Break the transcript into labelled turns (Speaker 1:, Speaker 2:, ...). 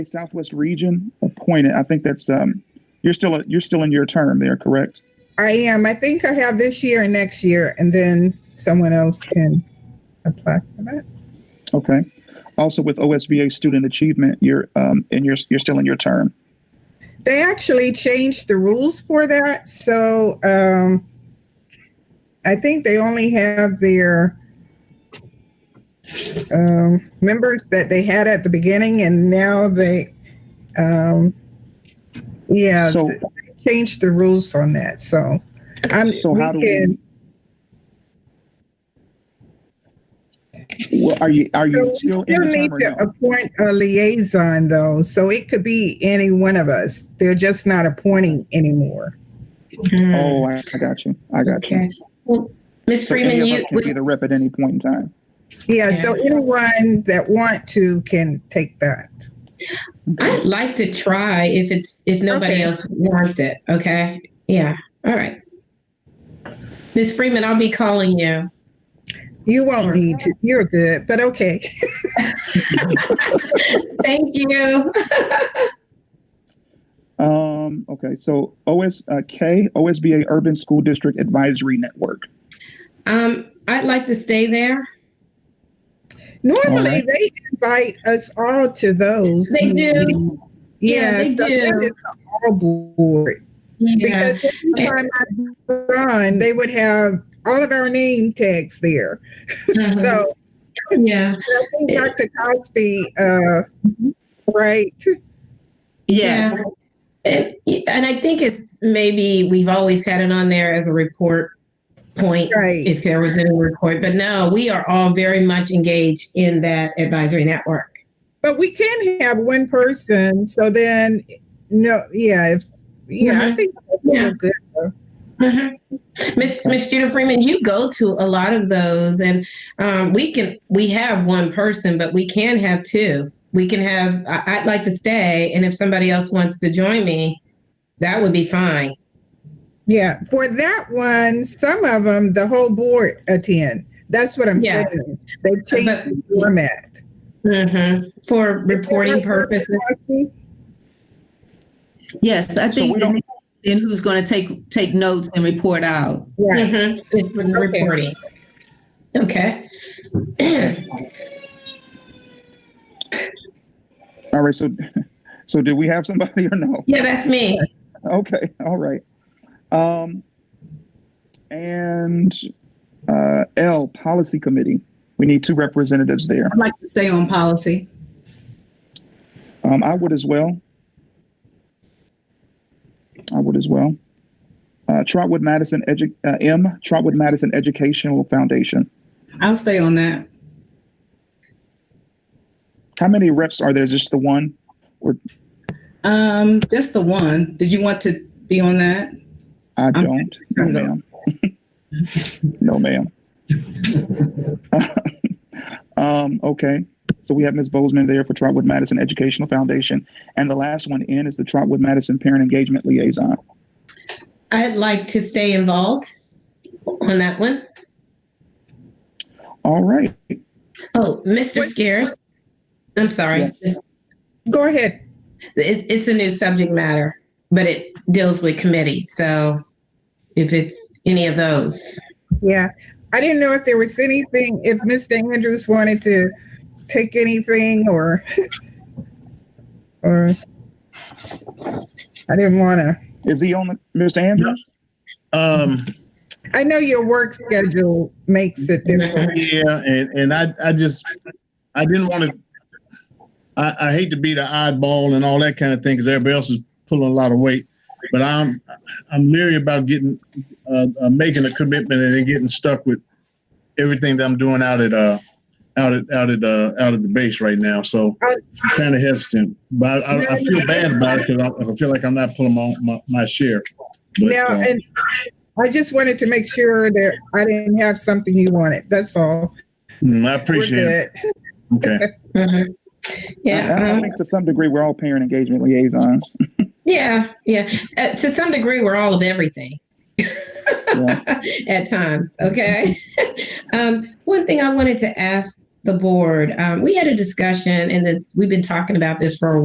Speaker 1: Southwest Region appointed. I think that's um, you're still you're still in your term there, correct?
Speaker 2: I am. I think I have this year and next year, and then someone else can apply for that.
Speaker 1: Okay. Also with OSBA Student Achievement, you're um, and you're you're still in your term.
Speaker 2: They actually changed the rules for that, so um, I think they only have their um, members that they had at the beginning, and now they, um, yeah,
Speaker 1: so
Speaker 2: they changed the rules on that. So I'm.
Speaker 1: so
Speaker 2: we
Speaker 1: how do
Speaker 2: can-
Speaker 1: we? Well, are you are
Speaker 2: So
Speaker 1: you
Speaker 2: we
Speaker 1: still
Speaker 2: still
Speaker 1: in the
Speaker 2: need
Speaker 1: term or
Speaker 2: to
Speaker 1: no?
Speaker 2: appoint a liaison though, so it could be any one of us. They're just not appointing anymore.
Speaker 1: Oh, I, I got you. I got you.
Speaker 3: Mm. Okay. Well, Ms.
Speaker 1: So any
Speaker 3: Freeman,
Speaker 1: of
Speaker 3: you,
Speaker 1: us can be the rep at any point in time.
Speaker 2: Yeah, so anyone that want to can take that.
Speaker 3: I'd like to try if it's, if nobody
Speaker 2: Okay.
Speaker 3: else wants it, okay? Yeah, all right. Ms. Freeman, I'll be calling you.
Speaker 2: You won't need to, you're good, but okay.
Speaker 3: Thank you.
Speaker 1: Um, okay, so OS uh, K OSBA Urban School District Advisory Network.
Speaker 3: Um, I'd like to stay there.
Speaker 1: All
Speaker 2: Normally,
Speaker 1: right.
Speaker 2: they invite us all to those.
Speaker 3: They do.
Speaker 2: Yeah,
Speaker 3: Yeah, they
Speaker 2: so
Speaker 3: do.
Speaker 2: that is all board.
Speaker 3: Yeah,
Speaker 2: Because every time I run, they would have all of our name tags there.
Speaker 3: Uh-huh.
Speaker 2: So
Speaker 3: yeah.
Speaker 2: I think Dr. Cosby, uh, right,
Speaker 3: Yes. And, and I think it's maybe we've always had it on there as a report point.
Speaker 2: right.
Speaker 3: if there was any report. But no, we are all very much engaged in that advisory network.
Speaker 2: But we can have one person, so then, no, yeah, if, yeah, I think that's
Speaker 3: Mm-hmm. Yeah.
Speaker 2: real good.
Speaker 3: Mm-hmm. Miss Miss Judah Freeman, you go to a lot of those, and um, we can we have one person, but we can have two. We can have. I, I'd like to stay, and if somebody else wants to join me, that would be fine.
Speaker 2: Yeah, for that one, some of them, the whole board attend. That's what I'm
Speaker 3: Yeah.
Speaker 2: saying. They've changed the
Speaker 3: But-
Speaker 2: format.
Speaker 3: hmm For reporting purposes.
Speaker 4: Yes, I
Speaker 1: So
Speaker 4: think
Speaker 1: we don't-
Speaker 4: then- then who's going to take, take notes and report out.
Speaker 2: Right.
Speaker 3: Mhm. It's for the
Speaker 2: Okay.
Speaker 3: reporting. Okay.
Speaker 1: All right, so so do we have somebody or no?
Speaker 3: yeah, that's me.
Speaker 1: Okay, all right. Um, and uh, L, Policy Committee. We need two representatives there.
Speaker 5: I'd like to stay on policy.
Speaker 1: Um, I would as well. I would as well. Uh, Trotwood Madison Edu- uh, M, Trotwood Madison Educational Foundation.
Speaker 5: I'll stay on that.
Speaker 1: How many reps are there? Just the one?
Speaker 5: Um, just the one. Did you want to be on that?
Speaker 1: I don't. No,
Speaker 5: no.
Speaker 1: ma'am. no, ma'am. um, okay. So we have Ms. Bozeman there for Trotwood Madison Educational Foundation. And the last one in is the Trotwood Madison Parent Engagement Liaison.
Speaker 3: I'd like to stay involved on that one.
Speaker 1: All right.
Speaker 3: Oh, Mr.
Speaker 2: Wait.
Speaker 3: Scares. I'm sorry.
Speaker 1: Yes.
Speaker 3: It's-
Speaker 2: Go ahead.
Speaker 3: It, it's a new subject matter, but it deals with committees. So if it's any of those,
Speaker 2: Yeah. I didn't know if there was anything, if Mr. Andrews wanted to take anything or, or, I didn't want to.
Speaker 1: Is he on the, Mr. Andrews?
Speaker 6: Um,
Speaker 2: I know your work schedule makes it different.
Speaker 6: yeah, and, and I, I just, I didn't want to, I, I hate to be the oddball and all that kind of thing because everybody else is pulling a lot of weight. But I'm, I'm leery about getting, uh, uh, making a commitment and then getting stuck with everything that I'm doing out at, uh, out at, out at, uh, out at the base right now. So I'm kind of hesitant, but I, I- I feel bad about it because I, I feel like I'm not pulling my, my, my share. But,
Speaker 2: Now,
Speaker 6: uh,
Speaker 2: and I just wanted to make sure that I didn't have something you wanted. That's all.
Speaker 6: mm, I
Speaker 2: We're
Speaker 6: appreciate it.
Speaker 2: good.
Speaker 6: Okay.
Speaker 1: I, I
Speaker 3: yeah, um,
Speaker 1: think to some degree we're all parent engagement liaisons.
Speaker 3: yeah, yeah. Uh, to some degree, we're all of everything
Speaker 1: Yeah.
Speaker 3: at times. Okay. um, one thing I wanted to ask the board, um, we had a discussion, and it's, we've been talking about this for a